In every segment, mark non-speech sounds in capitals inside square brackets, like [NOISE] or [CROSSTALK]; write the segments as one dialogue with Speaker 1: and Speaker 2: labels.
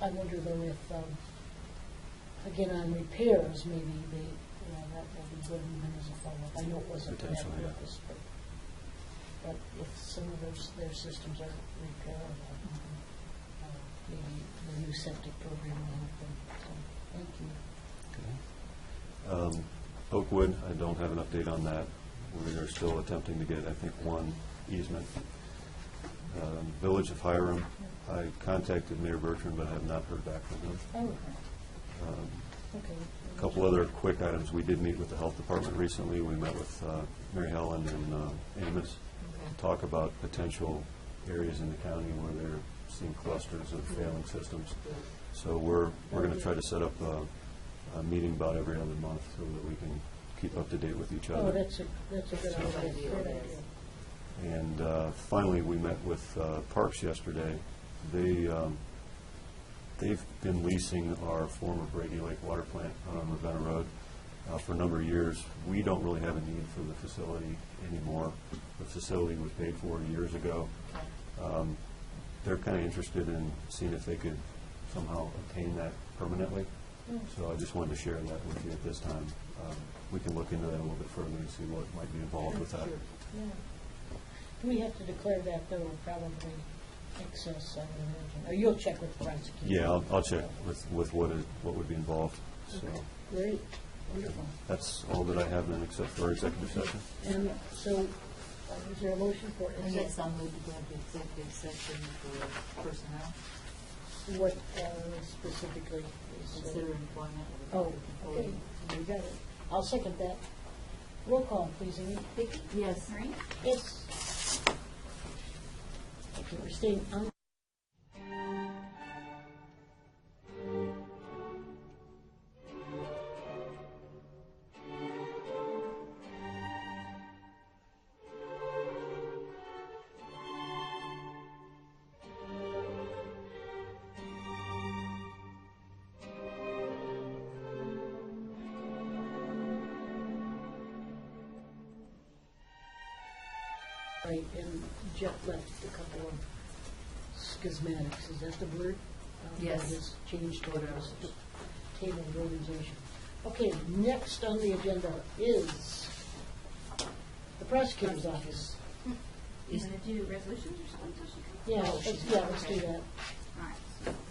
Speaker 1: I wonder though if, um, again, on repairs, maybe they, you know, that would be good even as a follow-up. I know it wasn't for that
Speaker 2: Potentially, yeah.
Speaker 1: purpose, but, but if some of those, their systems are repairable, um, maybe the new septic program will help them. So, Thank you.
Speaker 2: Um, Oakwood, I don't have an update on that. We are still attempting to get, I think, one easement. Um, Village of Hiram, I contacted Mayor Bertrand, but I have not heard back from him.
Speaker 1: Oh,
Speaker 2: Um,
Speaker 1: okay.
Speaker 2: A Couple other quick items, we did meet with the Health Department recently. We met with uh, Mary Helen and uh, Amos
Speaker 1: Okay.
Speaker 2: to talk about potential areas in the county where they're seeing clusters of failing systems. So we're, we're going to try to set up a, a meeting about every other month so that we can keep up to date with each
Speaker 1: Oh,
Speaker 2: other.
Speaker 1: that's a, that's a good idea. Good idea.
Speaker 2: And uh, finally, we met with uh, Parks yesterday. They, um, they've been leasing our former Brady Lake Water Plant on Ravenna Road uh, for a number of years. We don't really have a need for the facility anymore. The facility was paid for years ago. Um, They're kind of interested in seeing if they could somehow obtain that permanently. So I just wanted to share that with you at this time. Um, We can look into that a little bit further and see what might be involved with that.
Speaker 1: Yeah. We have to declare that, though, probably excess, I would imagine, or you'll check with the prosecutor.
Speaker 2: Yeah, I'll, I'll check with, with what is, what would be involved, so.
Speaker 1: Okay. Great, wonderful.
Speaker 2: That's all that I have then, except for executive session.
Speaker 1: And so, uh, is there a motion for
Speaker 3: And yes,
Speaker 1: exec-
Speaker 3: I'll move to go into executive session for personnel,
Speaker 1: what uh, specifically is? uh,
Speaker 3: consider employment
Speaker 1: Oh,
Speaker 3: of a public
Speaker 1: okay,
Speaker 3: employee.
Speaker 1: you got it. I'll second that. Roll call, please, Amy.
Speaker 3: Vicki? Yes.
Speaker 1: Yes. Okay, we're staying on Right, and Jeff left a couple of schismatics, is that the word? Uh, that
Speaker 3: Yes.
Speaker 1: is changed to this table of organization. Okay, next on the agenda is the prosecutor's office.
Speaker 4: You gonna do resolutions or something? so she can-
Speaker 1: Yeah,
Speaker 3: Oh,
Speaker 1: let's, yeah, let's do that.
Speaker 4: All right.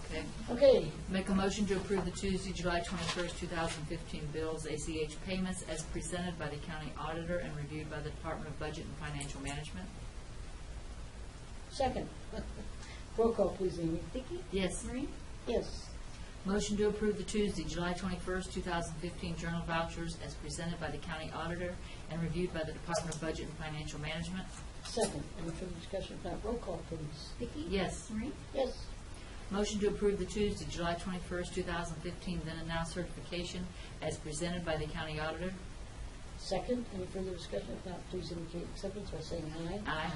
Speaker 3: Okay.
Speaker 1: Okay,
Speaker 3: Make a motion to approve the Tuesday, July twenty-first, two thousand fifteen bills, ACH payments as presented by the county auditor and reviewed by the Department of Budget and Financial Management.
Speaker 1: second. [LAUGHS] Roll call, please, Amy.
Speaker 4: Vicki?
Speaker 3: Yes.
Speaker 4: Maureen?
Speaker 1: Yes,
Speaker 3: Motion to approve the Tuesday, July twenty-first, two thousand fifteen journal vouchers as presented by the county auditor and reviewed by the Department of Budget and Financial Management.
Speaker 1: second. Any further discussion? If not, roll call, please.
Speaker 4: Vicki?
Speaker 3: Yes.
Speaker 4: Maureen?
Speaker 1: Yes,
Speaker 3: Motion to approve the Tuesday, July 21st, 2015, then and now certification as presented by the county auditor.
Speaker 1: second. Any further discussion? If not, please indicate acceptance by saying aye.
Speaker 3: Aye.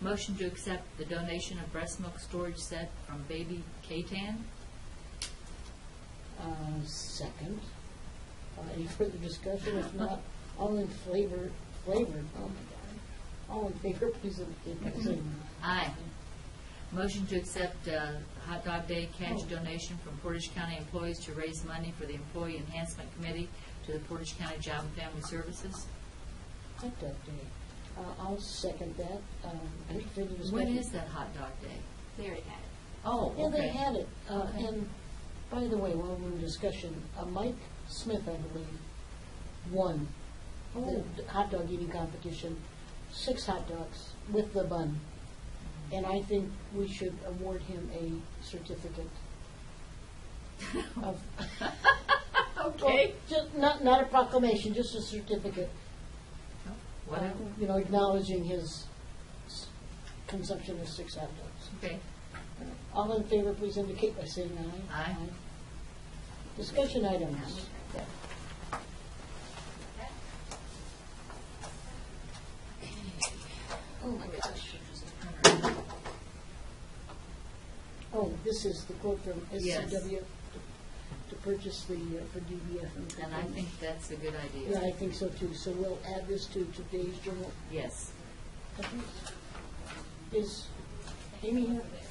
Speaker 3: Motion to accept the donation of breast milk storage set from Baby K-Tan.
Speaker 1: Uh, Second. Uh, Any further discussion? If not, all in flavor, flavored, oh my God. All in favor, please indicate by saying
Speaker 3: Aye. Motion to accept uh, Hot Dog Day cash donation from Portage County employees to raise money for the Employee Enhancement Committee to the Portage County Job and Family Services.
Speaker 1: aye. Hot dog day. Uh, I'll second that. Um, Any further discussion?
Speaker 3: When is that Hot Dog Day?
Speaker 4: They already had it.
Speaker 3: Oh, okay.
Speaker 1: Yeah, they had it. Uh, And by the way, while we're in discussion, uh, Mike Smith, I believe, won the
Speaker 3: Oh.
Speaker 1: d- hot dog eating competition, six hot dogs with the bun.
Speaker 3: Mm-hmm.
Speaker 1: And I think we should award him a
Speaker 3: [LAUGHS]
Speaker 1: certificate of
Speaker 3: Okay.
Speaker 1: Well, ju- Not, not a proclamation, just a certificate, uh,
Speaker 3: Whatever.
Speaker 1: you know, acknowledging his s- consumption of six hot dogs.
Speaker 3: Okay.
Speaker 1: All in favor, please indicate by saying aye.
Speaker 3: Aye.
Speaker 1: Discussion items. Oh, my gosh. Oh, this is the quote from
Speaker 3: Yes.
Speaker 1: SCW to purchase the, uh, for DBF.
Speaker 3: And I think that's a good idea.
Speaker 1: Yeah, I think so too. So we'll add this to today's journal.
Speaker 3: Yes.
Speaker 1: Is Amy here?